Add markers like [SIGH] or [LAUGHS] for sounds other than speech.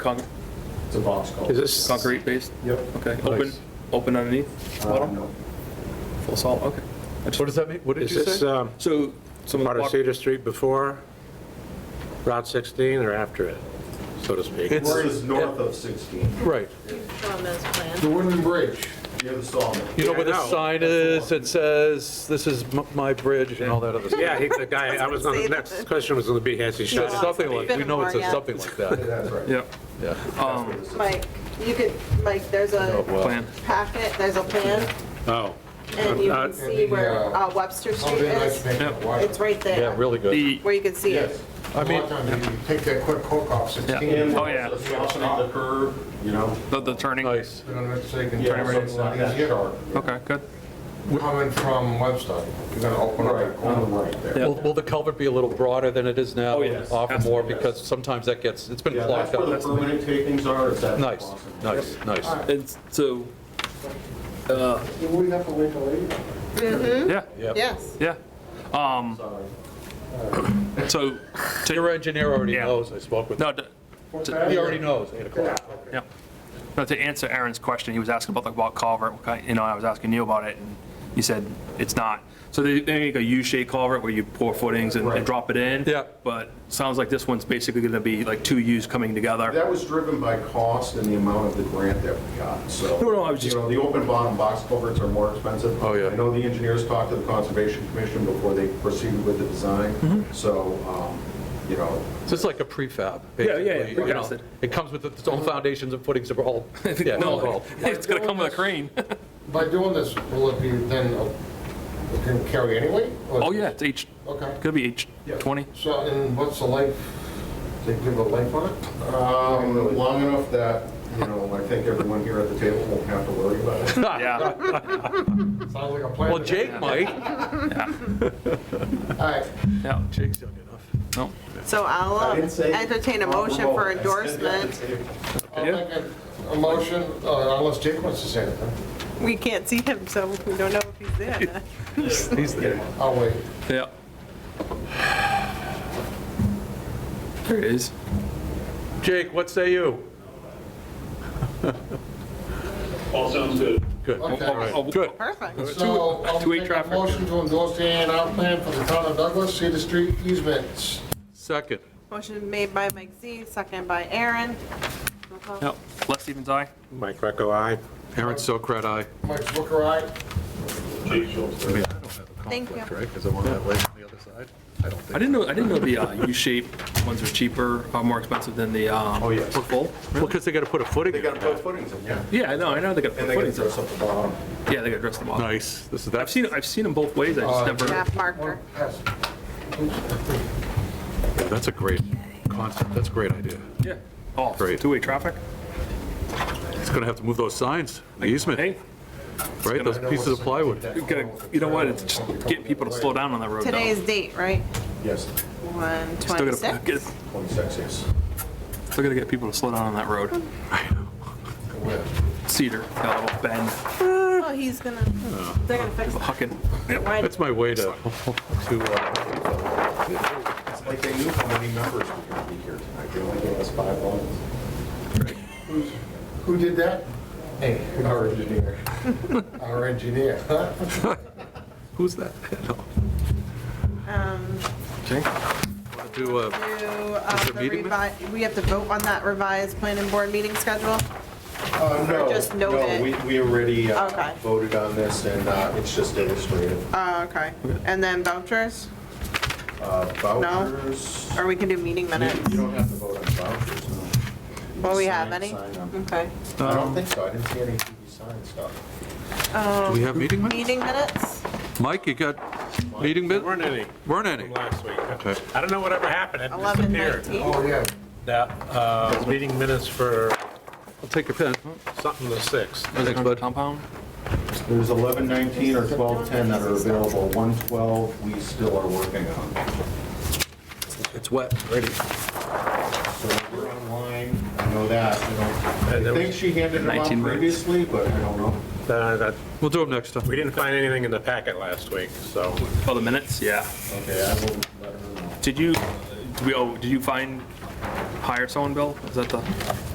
Con- It's a box culvert. Is this- Concrete based? Yep. Okay, open, Nice. open underneath? Uh, bottom? no. Full salt, okay. I just- What does that mean? What did Is you this say? um, So some of part the of block- Cedar Street before Route 16 or after it, so to speak? It's- Road is north of 16, Right. on those plans. The wooden bridge. near the sawmill. You know where Yeah, I the know. sign is that says, this is m- my bridge and all that other stuff? Yeah, he- the guy, I was, gonna- the next question was going to be, has he It's shut it? something like, we know it's a something like Yeah, that. That's right. Yeah, Yeah. That's where this is. Mike, you could, Mike, there's Oh, a wow. plan. packet, there's a plan, Oh. and you Uh, can see where uh, Webster How Street they like to is. make Yep. it wide. It's right Yeah, there, really good. The, where you can see it. Yes. I A mean- lot of times you take that quick hook off 16. Yeah. And Oh, yeah. also softening the curb, you know? the- the turning, okay, Nice. You know, let's say you can Yeah, turn right something like that. easier or good. coming from Webster, you're gonna open up that Right, corner. on the right there. Yeah. Will will the culvert be a little broader than it is now? Oh, yes. Offer more, Yes. because sometimes that gets, it's been Yeah, that's clogged where the up. permanent takings are, it's at. the Nice, bottom. nice, nice. And so, You wouldn't have to wait till later. yeah, Mm-hmm. Yes. yeah. Um, Sorry. so, to- Your engineer already Yeah. knows, I spoke with him. no, to- He already knows, 8 o'clock. yeah. No, to answer Aaron's question, he was asking about the block culvert, what kind- you know, I was asking you about it, and you said it's not. So they, they make a U-shaped culvert where you pour footings and and Right. drop it in. Yeah. But sounds like this one's basically gonna be like two U's coming together. That was driven by cost and the amount of the grant that we got, so. No, no, I was just- You know, the open bottom box culverts are more expensive. Oh, yeah. I know the engineers talked to the Conservation Commission before they proceeded with the design, so, um, you know, So it's like a prefab, Yeah, yeah, basically. yeah, you know. precasted. It comes with its own foundations and footings [LAUGHS] of all, yeah, No, all. it's gonna come with a crane. [LAUGHS] By doing this, will it be then, uh, it can carry anyway? Or- Oh, yeah, it's H, Okay. could be H20. So, and what's the life, they give a life on it? um, long enough that, you know, I think everyone here at the table won't have to worry about it. Yeah, Sounds like a [LAUGHS] plan. Well, to me. Jake might. All right, yeah, Jake's young enough. no. So I'll I um, didn't say- entertain a motion for I said that endorsement. at the table. I'll Yeah. make a- a motion, uh, unless Jake wants to say anything. We can't see him, so we don't know if he's there. or not. He's there. I'll wait. Yeah. There it is. Jake, what say you? [LAUGHS] All sounds good. Good. Okay. Oh, All Oh, right. Good. Perfect. So I'll uh, two-way make a traffic. motion to endorse the A and R plan for the town of Douglas, Cedar Street easements. Second. Motion made by Mike Z, second by Aaron. Roll call. Yep. Les Stevens, aye. Mike Greco, aye. Aaron Sokrat, aye. Mike Booker, aye. Jake Schultz. I mean, I don't have a Thank you. conflict, right? Because I'm on that lake on the other side. I don't I think. didn't know, I didn't know the uh, U-shaped ones are cheaper, uh, more expensive than the. Oh, yes. Full? Well, because they got to put a footing. They in. gotta put footings in, yeah. Yeah, I know, I know they got And they gotta footings. dress up the bottom. Yeah, they got dressed them up. Nice. This is, I've that's, seen, I've seen them both ways, I just Uh, never, Map marker. Yes. that's a great concept. That's a great idea. yeah. Oh, Great. two-way traffic? It's going to have to move those signs, the Hey, easement, right? Those pieces of plywood. you gotta, you know what, it's just getting people to slow down on that road now. Today's date, right? Yes, Still gotta- 126? get- twenty-six, yes. Still gotta get people to slow down on that road. Cedar, got a little bend, Oh, he's gonna, they're gonna fix it. hucking. Why- That's my way to, to, uh, It's like they knew how many members were gonna be here tonight, they only gave us five votes. Who did that? Hey, [LAUGHS] our engineer. Our engineer. who's that? [LAUGHS] No. um, To, uh, to, uh, Is there the meeting minutes? revi- we have to vote on that revised planning board meeting schedule? Uh, no, just note it? No, we, we already uh, Okay. voted on this, and uh, it's just illustrative. Oh, okay. And then vouchers, Uh, Vouchers, or we can do meeting you minutes? you don't have to vote on vouchers, no. You Well, we just have sign- any? sign Mm. them. Okay. I don't think so, I didn't see any TV sign stuff. do we have meeting minutes? Meeting minutes? Mike, you got meeting There minutes? weren't any Weren't any? last week. Okay. I don't know whatever happened, it Eleven disappeared. nineteen? Oh, yeah. That, uh, meeting minutes for I'll take your pen. something the 6th. Thanks, bud. Compound? There's 1119 or 1210 that are available, 112 we still are working on. It's wet, ready. So we're online, I know that, I And don't, there I think was- she handed them out 19 minutes. previously, but I don't know. Uh, that- We'll do them next time. We didn't find anything in the packet last week, so. Oh, the minutes, yeah. Okay, I will let her know. Did you, did we, oh, did you find, hire someone, Bill? Is that the?